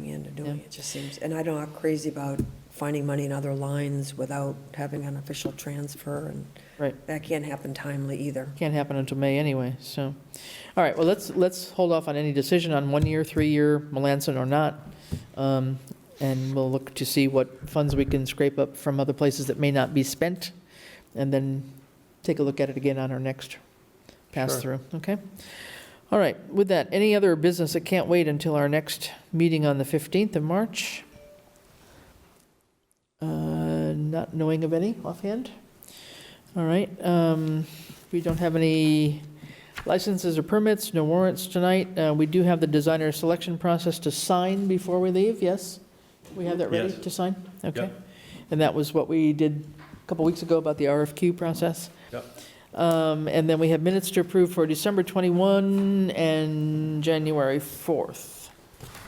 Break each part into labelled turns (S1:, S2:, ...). S1: doing. It just seems, and I know I'm crazy about finding money in other lines without having an official transfer, and
S2: Right.
S1: that can't happen timely either.
S2: Can't happen until May anyway, so. All right, well, let's, let's hold off on any decision on one-year, three-year, Melanson or not. Um, And we'll look to see what funds we can scrape up from other places that may not be spent, and then take a look at it again on our next pass-through, okay? All right, with that, any other business that can't wait until our next meeting on the 15th of March? Uh, Not knowing of any offhand? All right, um, we don't have any licenses or permits, no warrants tonight. Uh, We do have the designer selection process to sign before we leave, yes? We have that ready
S3: Yes.
S2: to sign? Okay.
S3: Yep.
S2: And that was what we did a couple weeks ago about the RFQ process?
S3: Yep.
S2: Um, And then we have minutes to approve for December 21 and January 4th.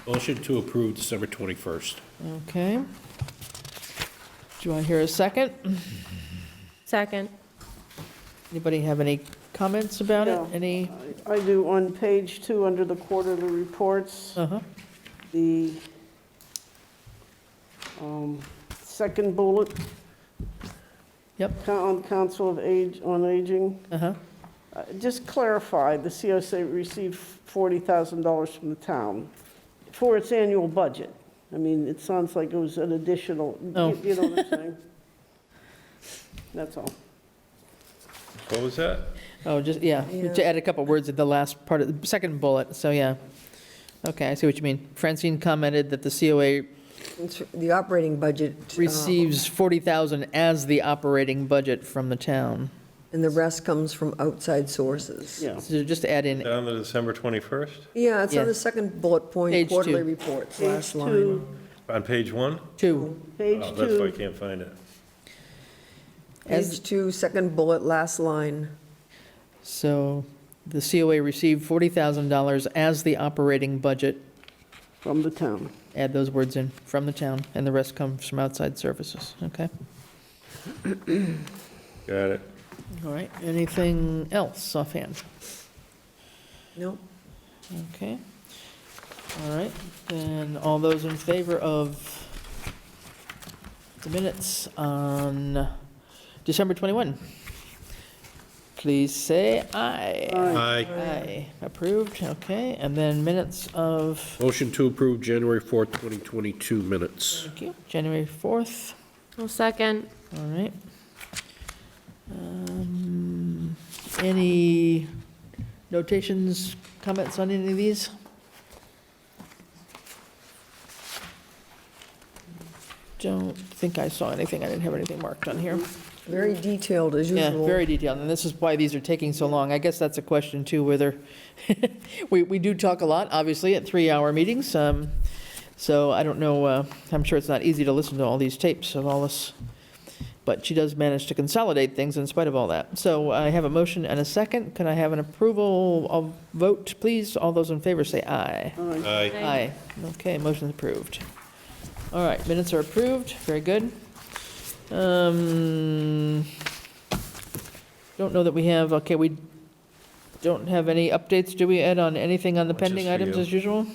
S3: Motion to approve December 21st.
S2: Okay. Do I hear a second?
S4: Second.
S2: Anybody have any comments about it?
S5: No.
S2: Any?
S5: I do, on page two, under the quarterly reports,
S2: Uh-huh.
S5: the um, second bullet.
S2: Yep.
S5: Coun- On Council of Age, on Aging,
S2: Uh-huh.
S5: Uh, just clarify, the COC received $40,000 from the town for its annual budget. I mean, it sounds like it was an additional,
S2: Oh.
S5: you you know what I'm saying? That's all.
S3: What was that?
S2: Oh, just, yeah, to
S1: Yeah.
S2: add a couple words at the last part of, the second bullet, so yeah. Okay, I see what you mean. Francine commented that the COA
S5: Oh.
S1: It's- The operating budget. uh,
S2: receives 40,000 as the operating budget from the town.
S1: And the rest comes from outside sources.
S5: Yeah.
S2: So just add in,
S3: Down to December 21st,
S1: Yeah, it's on the
S2: Yes.
S1: second bullet
S2: Page
S1: point,
S2: two.
S1: quarterly reports,
S5: Page
S1: last line.
S5: two,
S3: on page one?
S2: two,
S5: page
S3: Oh, That's why I
S5: two,
S3: can't find it.
S2: as-
S1: Page two, second bullet, last line.
S2: so the COA received $40,000 as the operating budget,
S5: from the town.
S2: add those words in, from the town, and the rest comes from outside services, okay?
S3: Got it.
S5: Mm-hmm.
S2: All right, anything else offhand?
S1: Nope.
S2: Okay. All right, then all those in favor of the minutes on December 21? Please say aye.
S3: Aye.
S2: Aye, approved, okay, and then minutes of,
S3: Motion to approve January 4th, 2022 minutes.
S2: thank you, January 4th,
S4: I'll second.
S2: all right. Um, Any notations, comments on any of these? Don't think I saw anything, I didn't have anything marked on here.
S1: Very detailed as
S2: Yeah,
S1: usual.
S2: very detailed, and this is why these are taking so long. I guess that's a question too, whether, we, we do talk a lot, obviously, at three-hour meetings, um, so I don't know, uh, I'm sure it's not easy to listen to all these tapes of all this, but she does manage to consolidate things in spite of all that. So I have a motion and a second. Can I have an approval of vote, please? All those in favor say aye.
S3: Aye.
S2: Aye. Okay, motion's approved. All right, minutes are approved, very good. Um, Don't know that we have, okay, we don't have any updates, do we, Ed, on anything on the
S3: Which is
S2: pending
S3: for
S2: items
S3: you.
S2: as usual?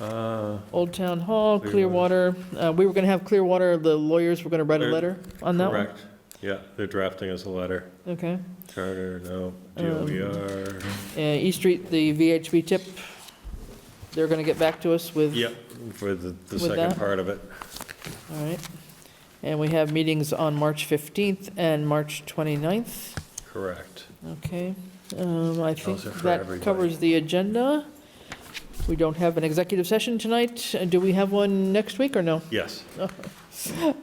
S3: Uh,
S2: Old Town Hall,
S3: Clearwater.
S2: Clearwater, uh, we were going to have Clearwater, the lawyers were going to write a
S3: Clear-
S2: letter on that one?
S3: Correct. Yeah, they're drafting us a letter.
S2: Okay.
S3: Charter, no, E
S2: Um,
S3: DOER.
S2: Uh, East Street, the VHB tip, they're going to get back to us with?
S3: Yep, for the, the
S2: With
S3: second
S2: that?
S3: part of it.
S2: All right. And we have meetings on March 15th and March 29th.
S3: Correct.
S2: Okay, um, I think
S3: Those are for
S2: that
S3: everybody.
S2: covers the agenda. We don't have an executive session tonight. Uh, Do we have one next week or no?
S3: Yes.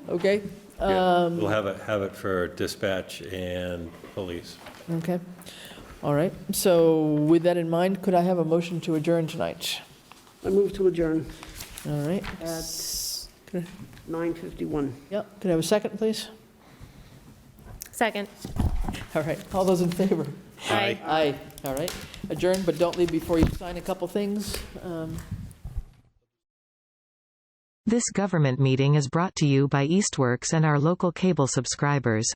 S2: Okay,
S3: Yeah.
S2: Um,
S3: We'll have it, have it for dispatch and police.
S2: okay. All right, so with that in mind, could I have a motion to adjourn tonight?
S5: I move to adjourn,
S2: All right.
S5: At-
S2: Could I-
S5: 9:51.
S2: Yep, could I have a second, please?
S4: Second.
S2: All right, all those in favor?
S4: Aye.
S2: Aye, all right. Adjourn, but don't leave before you sign a couple things. Um,
S6: This government meeting is brought to you by Eastworks and our local cable subscribers.